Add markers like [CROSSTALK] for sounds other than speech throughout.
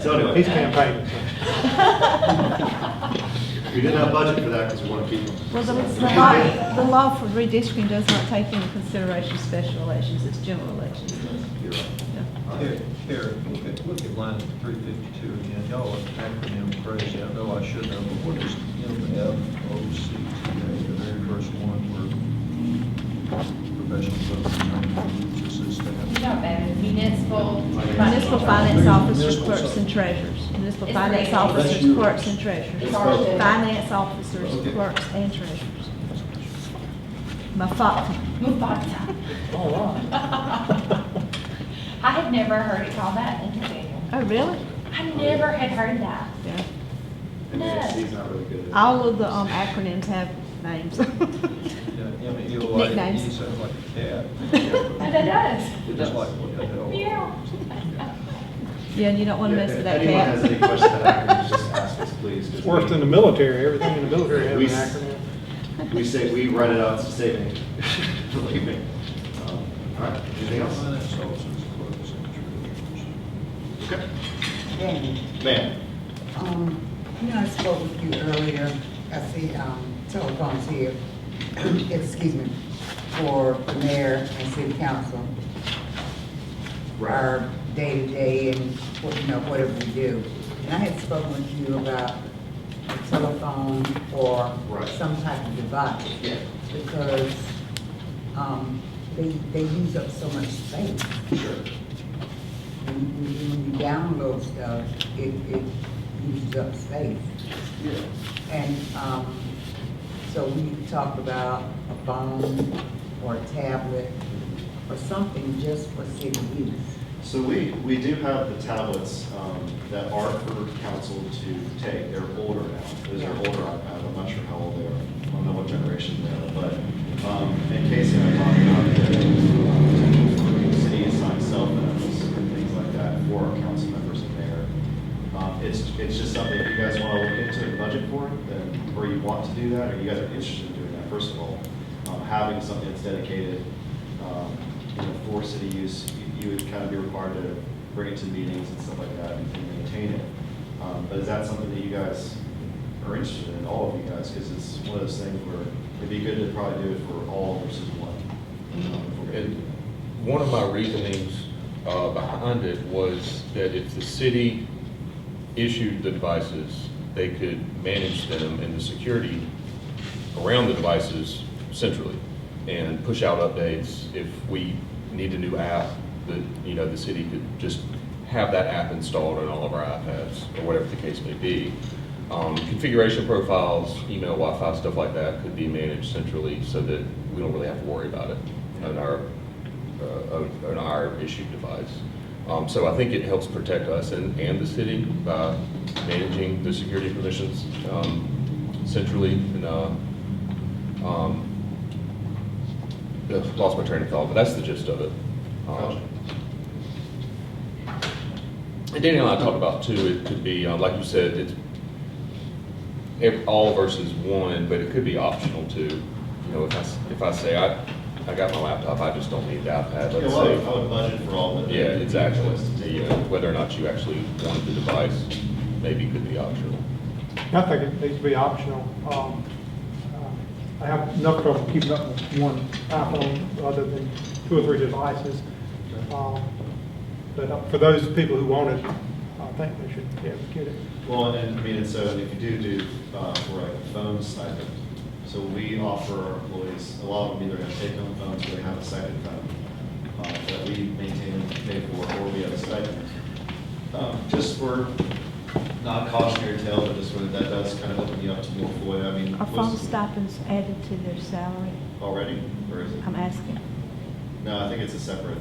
So anyway. He's campaigning. We didn't have budget for that because we want to keep them. Well, the the law, the law for redistricting does not take into consideration special elections, it's general elections. You're right. Yeah. All Here, right. here, look at, look at line three fifty-two again, y'all are acronym crazy, I know I should know, but what is MFOC today, the very first one where professional services, this is You that. know, better municipal. Municipal finance officers, clerks, and treasurers. Municipal It's finance great. That's officers, yours. clerks, and treasurers. It's ours. Finance officers, Okay. clerks, and treasurers. My fault. Mufasa. All right. [LAUGHS] I had never heard it called that in the manual. Oh, really? I never had heard that. Yeah. And No. he's not really good at it. All of the um, acronyms have names. [LAUGHS] Yeah, M E O I E Nicknames. sounds like a cat. [LAUGHS] And it does. It Just does. like what the hell. Yeah. Yeah, and you don't want to Yeah, mess with if that Anyone has any cat. questions about acronyms, just ask us, please. 'cause It's worse than the we- military, everything in the military has We- an acronym. We say, we write it out, it's a saving, [LAUGHS] believe me. Um, All right, anything else? Finance officers, clerks, and Okay. Danny, Ma'am, um, you know, I spoke with you earlier, I see, um, telephones here, [CLEARS THROAT] excuse me, for the mayor and city council. right, Our day-to-day and, what you know, whatever we do. And I had spoken with you about a telephone or Right. some type of device. Yeah. Because, um, they, they use up so much space. sure. When you- when you download stuff, it, it uses up space. Yeah. And, um, so we talked about a phone or a tablet or something just for city use. So we, we do have the tablets um, that are for council to take. They're older now. Those are older iPads. I'm not sure how old they are. I don't know what generation they are, but um, in case you have talked about the um, city assigned cell phones and things like that for our council members in there. Um, It's, it's just something, if you guys want to look into and budget for, it, then, or you want to do that, or you guys are interested in doing that, first of all, um, having something that's dedicated um, you know, for city use, you- you would kind of be required to bring it to meetings and stuff like that and and maintain it. Um, But is that something that you guys are interested in, all of you guys? Because it's one of those things where it'd be good to probably do it for all versus one. um, if we're gonna do And one of my reasonings uh, behind it was that if the city issued the devices, they could manage them and the security around the devices centrally and push out updates. If we need a new app, that, you know, the city could just have that app installed on all of our iPads or whatever the case may be. Um, Configuration profiles, email, Wi-Fi, stuff like that could be managed centrally so that we don't really have to worry about it on our, uh, on on our issued device. Um, So I think it helps protect us and, and the city by managing the security permissions um, centrally and, uh, um, uh, lost my train of thought, but that's the gist of it. Um, Gotcha. And Daniel and I talked about too, it could be, uh, like you said, it's ev- all versus one, but it could be optional too. You know, if I, s- if I say, I, I got my laptop, I just don't need the it. iPad, Yeah, let's well, I would- say. I would budget for all, but. then Yeah, it'd be exactly. choice to take. You know, Whether or not you actually wanted the device, maybe could be optional. I think it needs to be optional. Um, uh, I have enough trouble keeping up with one iPhone other than two or three devices. Um, But uh, for those people who want it, I think they should be able to get it. Well, and I mean, and so, and if you do do, uh, for a phone stipend, so we offer our employees, a lot of them either have take-home phones or they have a second phone uh, that we maintain and pay for, or we have a stipend. Um, Just for not cautionary tale, but just when that does kind of open you up to more FOIA, I mean. [LAUGHS] Are phone was- stipends added to their salary? Already, or is it? I'm asking No, I think it's a separate,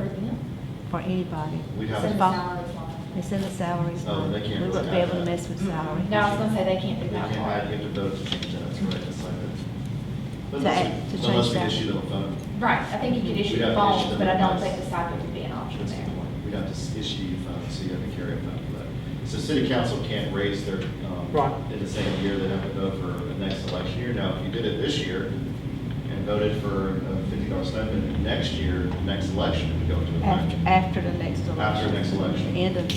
for anybody. we Send have, the it. salaries line. It's in the salaries Oh, line. they can't We wouldn't be really have able to that. mess with salary. Mm-hmm. No, I was gonna say they can't we do that can't part. add, you have to vote to change that, that's right, it's like. a- To add- to change Unless we that. issue them a phone. Right, I think you could issue We'd have to the issue phones, them but I don't device. think the stipend would be an option That's a there. good point. We'd have to issue uh, you funds, so you have to carry a fund for that. So city council can't raise their, Right. um, in the same year, they have to vote for the next election year. Now, if you did it this year and voted for a fifty dollar stipend, next year, next election, we go to a After, election. after the next election. After the next election. End of